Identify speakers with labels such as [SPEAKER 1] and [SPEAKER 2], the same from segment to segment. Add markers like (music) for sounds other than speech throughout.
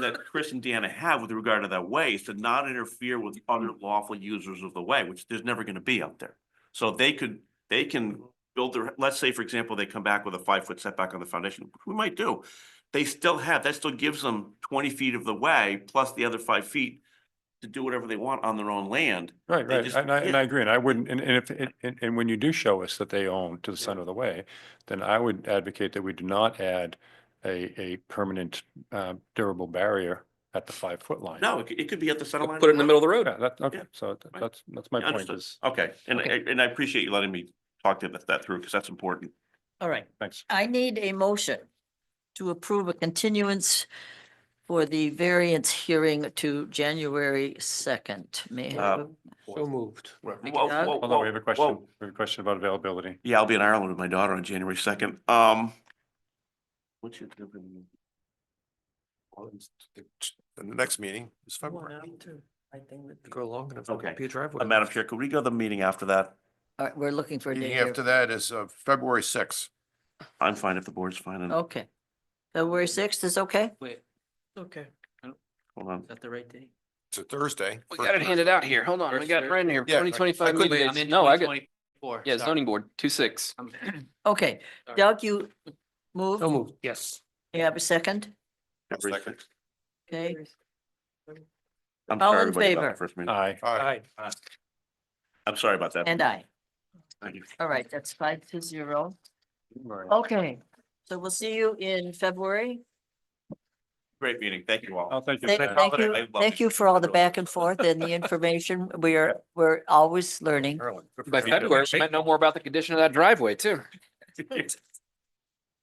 [SPEAKER 1] that Chris and Deanna have with regard to that way is to not interfere with other lawful users of the way, which there's never gonna be out there. So they could, they can build their, let's say, for example, they come back with a five foot setback on the foundation, which we might do. They still have, that still gives them twenty feet of the way plus the other five feet to do whatever they want on their own land.
[SPEAKER 2] Right,
[SPEAKER 1] They
[SPEAKER 2] right.
[SPEAKER 1] just-
[SPEAKER 2] And I, and
[SPEAKER 1] yeah.
[SPEAKER 2] I agree. And I wouldn't, and, and if, and- and, and when you do show us that they own to the
[SPEAKER 1] Yeah.
[SPEAKER 2] center of the way, then I would advocate that we do not add a, a permanent, uh, durable barrier at the five foot line.
[SPEAKER 1] No, it, c- it could be at the center line.
[SPEAKER 3] Put it in the middle of the road.
[SPEAKER 2] Yeah, that, okay.
[SPEAKER 1] Yeah.
[SPEAKER 2] So th-
[SPEAKER 1] Right.
[SPEAKER 2] that's, that's my point
[SPEAKER 1] Understood.
[SPEAKER 2] is,
[SPEAKER 1] Okay, and,
[SPEAKER 3] Okay.
[SPEAKER 1] I- and I appreciate you letting me talk to that, that through, because that's important.
[SPEAKER 4] All right,
[SPEAKER 2] thanks.
[SPEAKER 4] I need a motion to approve a continuance for the variance hearing to January second. May I have,
[SPEAKER 1] Uh,
[SPEAKER 4] a-
[SPEAKER 3] So moved.
[SPEAKER 4] Thank
[SPEAKER 1] Whoa,
[SPEAKER 4] you, Doug.
[SPEAKER 1] whoa,
[SPEAKER 2] Hold on, we have a
[SPEAKER 1] whoa,
[SPEAKER 2] question.
[SPEAKER 1] whoa.
[SPEAKER 2] We have a question about availability.
[SPEAKER 1] Yeah, I'll be in Ireland with my daughter on January second. Um. What's your?
[SPEAKER 5] The next meeting is February.
[SPEAKER 3] Go long enough.
[SPEAKER 1] Okay.
[SPEAKER 3] Be a driveway.
[SPEAKER 1] Uh, Madam Chair, could we go to the meeting after that?
[SPEAKER 4] all right, uh, we're looking for a date
[SPEAKER 5] Meeting
[SPEAKER 4] here.
[SPEAKER 5] after that is uh, February sixth.
[SPEAKER 1] I'm fine if the board's fine. and-
[SPEAKER 4] Okay. February sixth is okay?
[SPEAKER 6] Wait,
[SPEAKER 4] Okay.
[SPEAKER 1] Hold on.
[SPEAKER 6] is that the right date?
[SPEAKER 5] It's a Thursday.
[SPEAKER 3] We got it handed out here. Hold on. We
[SPEAKER 6] First
[SPEAKER 3] got it
[SPEAKER 6] Thursday.
[SPEAKER 3] right in here.
[SPEAKER 5] Yeah, I-
[SPEAKER 3] Twenty
[SPEAKER 5] I
[SPEAKER 3] twenty-five
[SPEAKER 5] couldn't-
[SPEAKER 6] Wait, I'm
[SPEAKER 3] meetings.
[SPEAKER 6] in
[SPEAKER 3] No, I got,
[SPEAKER 6] 2024,
[SPEAKER 3] yeah,
[SPEAKER 6] sorry.
[SPEAKER 3] zoning board, two six.
[SPEAKER 6] I'm-
[SPEAKER 4] Okay,
[SPEAKER 6] Sorry.
[SPEAKER 4] Doug, you move,
[SPEAKER 3] So moved. Yes.
[SPEAKER 4] you have a second?
[SPEAKER 1] February
[SPEAKER 5] Second.
[SPEAKER 1] 6th.
[SPEAKER 4] Okay,
[SPEAKER 1] I'm
[SPEAKER 4] All
[SPEAKER 1] sorry,
[SPEAKER 4] in
[SPEAKER 1] everybody, about
[SPEAKER 4] favor?
[SPEAKER 1] the first meeting.
[SPEAKER 2] Aye.
[SPEAKER 5] All
[SPEAKER 6] Uh,
[SPEAKER 5] right.
[SPEAKER 1] I'm sorry about that.
[SPEAKER 4] and I.
[SPEAKER 1] Thank you.
[SPEAKER 4] All right, that's five to zero. Okay, so we'll see you in February.
[SPEAKER 1] Great meeting. Thank you all.
[SPEAKER 2] Oh, thank you.
[SPEAKER 4] Thank,
[SPEAKER 2] Sam.
[SPEAKER 4] thank
[SPEAKER 1] holiday. I
[SPEAKER 4] you,
[SPEAKER 1] love
[SPEAKER 4] thank
[SPEAKER 1] you.
[SPEAKER 4] you for all the back and forth and the information. We are, we're always learning.
[SPEAKER 3] By (laughs) February, we might know more about the condition of that driveway too.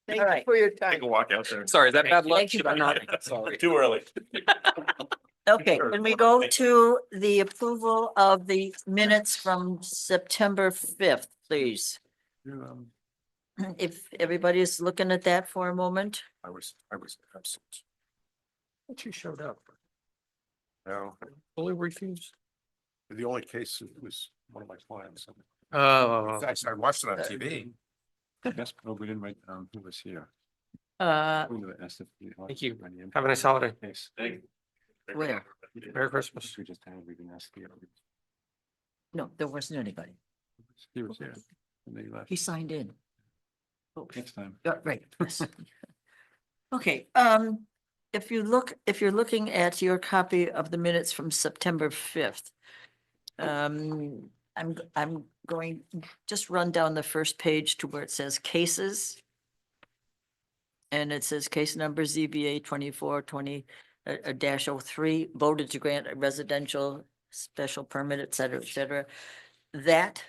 [SPEAKER 4] All right,
[SPEAKER 6] For your
[SPEAKER 1] Take a walk out there.
[SPEAKER 3] Sorry, is that bad luck?
[SPEAKER 4] Thank you
[SPEAKER 3] Should I
[SPEAKER 4] for
[SPEAKER 3] not?
[SPEAKER 1] nodding.
[SPEAKER 3] Sorry.
[SPEAKER 1] Too
[SPEAKER 4] (laughs)
[SPEAKER 1] early.
[SPEAKER 4] okay,
[SPEAKER 1] Sure.
[SPEAKER 4] can we go to the approval of the minutes from September fifth, please? If everybody's looking at that for a moment,
[SPEAKER 5] I was, I was absent.
[SPEAKER 3] But you showed up.
[SPEAKER 5] No,
[SPEAKER 3] Fully refused.
[SPEAKER 5] the only case was one of my clients.
[SPEAKER 3] Oh.
[SPEAKER 5] Actually, I watched it on TV.
[SPEAKER 2] Yes, no, we didn't write, um, who was here.
[SPEAKER 4] uh,
[SPEAKER 2] We would have asked if we-
[SPEAKER 3] Thank you.
[SPEAKER 2] on the impact
[SPEAKER 3] Have a nice holiday.
[SPEAKER 2] case.
[SPEAKER 1] Thank
[SPEAKER 4] Where?
[SPEAKER 3] Merry Christmas.
[SPEAKER 2] We just had, we didn't ask the other.
[SPEAKER 4] no, there wasn't anybody.
[SPEAKER 2] He was here. And they left
[SPEAKER 4] He signed in. Oh,
[SPEAKER 2] next
[SPEAKER 3] (laughs)
[SPEAKER 2] time.
[SPEAKER 4] yeah, Right. yes. Okay, um, if you look, if you're looking at your copy of the minutes from September fifth, um, I'm, g- I'm going, just run down the first page to where it says cases. And it says case number ZBA twenty-four twenty, uh, uh, dash oh three, voted to grant a residential special permit, et cetera, et cetera. That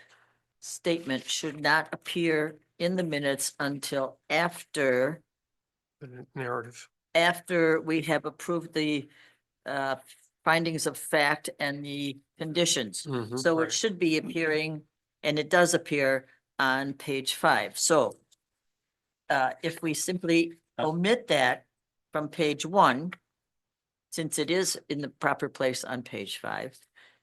[SPEAKER 4] statement should not appear in the minutes until after
[SPEAKER 3] The Narrative.
[SPEAKER 4] after we have approved the uh, findings of fact and the conditions.
[SPEAKER 3] Mhm.
[SPEAKER 4] So
[SPEAKER 3] Right.
[SPEAKER 4] it should be appearing, and it does appear on page five. So uh, if we simply omit that from page one, since it is in the proper place on page five,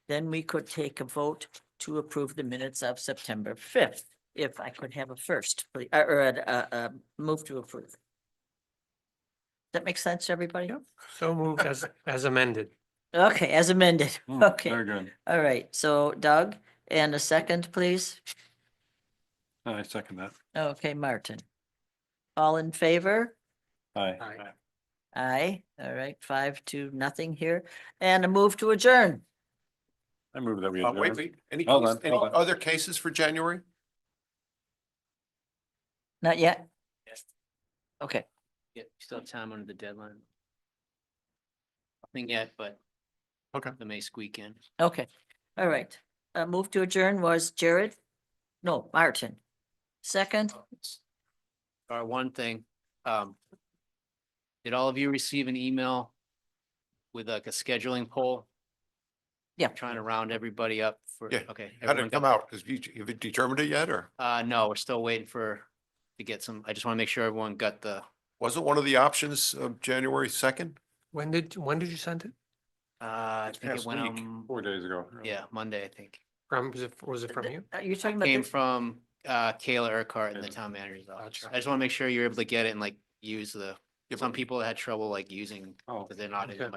[SPEAKER 4] then we could take a vote to approve the minutes of September fifth. If I could have a first, please, uh, or- or a, a, a move to approve. Does That makes sense, to everybody?
[SPEAKER 3] So moved as, as amended.
[SPEAKER 4] Okay, as amended.
[SPEAKER 2] Hmm, Very
[SPEAKER 4] Okay,
[SPEAKER 2] good.
[SPEAKER 4] all right. So Doug, and a second, please.
[SPEAKER 2] I second that.
[SPEAKER 4] Okay, Martin. All in favor?
[SPEAKER 2] Aye.
[SPEAKER 3] Aye.
[SPEAKER 4] Aye. All right, five to nothing here. And a move to adjourn.
[SPEAKER 2] I move that we.
[SPEAKER 5] Uh, Wait,
[SPEAKER 2] adjourn.
[SPEAKER 5] wait, any,
[SPEAKER 2] Hold
[SPEAKER 5] case-
[SPEAKER 2] on,
[SPEAKER 5] any
[SPEAKER 2] hold on.
[SPEAKER 5] other cases for January?
[SPEAKER 4] Not yet?
[SPEAKER 6] Yes.
[SPEAKER 4] Okay,
[SPEAKER 6] Yeah, you still have time under the deadline. Nothing yet, but.
[SPEAKER 5] Okay.
[SPEAKER 6] The May squeak in.
[SPEAKER 4] okay. All right. Uh, move to adjourn was Jared? No, Martin. Second?
[SPEAKER 6] Or one thing, um. Did all of you receive an email? With like a scheduling poll?
[SPEAKER 4] Yeah.
[SPEAKER 6] Trying to round everybody up for,
[SPEAKER 5] Yeah.
[SPEAKER 6] okay.
[SPEAKER 5] How did
[SPEAKER 6] everyone
[SPEAKER 5] it
[SPEAKER 6] got-
[SPEAKER 5] come out? Have you, have you determined it yet or
[SPEAKER 6] Uh, no, we're still waiting for, to get some, I just want to make sure everyone got the,
[SPEAKER 5] wasn't one of the options of January second?
[SPEAKER 3] When did, when did you send it?
[SPEAKER 6] uh, I think it
[SPEAKER 5] past
[SPEAKER 6] went
[SPEAKER 5] week,
[SPEAKER 6] on,
[SPEAKER 2] Four days ago.
[SPEAKER 6] yeah, Monday, I think.
[SPEAKER 3] From, was it, was it from you?
[SPEAKER 4] Are you talking about
[SPEAKER 6] Came
[SPEAKER 4] this?
[SPEAKER 6] from, uh, Kayla Urquhart in the
[SPEAKER 2] Kayla.
[SPEAKER 6] town manager's office.
[SPEAKER 3] Gotcha.
[SPEAKER 6] I just want to make sure you're able to get it and like use the Some people had trouble like using,
[SPEAKER 2] Oh.
[SPEAKER 6] because they're not in
[SPEAKER 2] okay.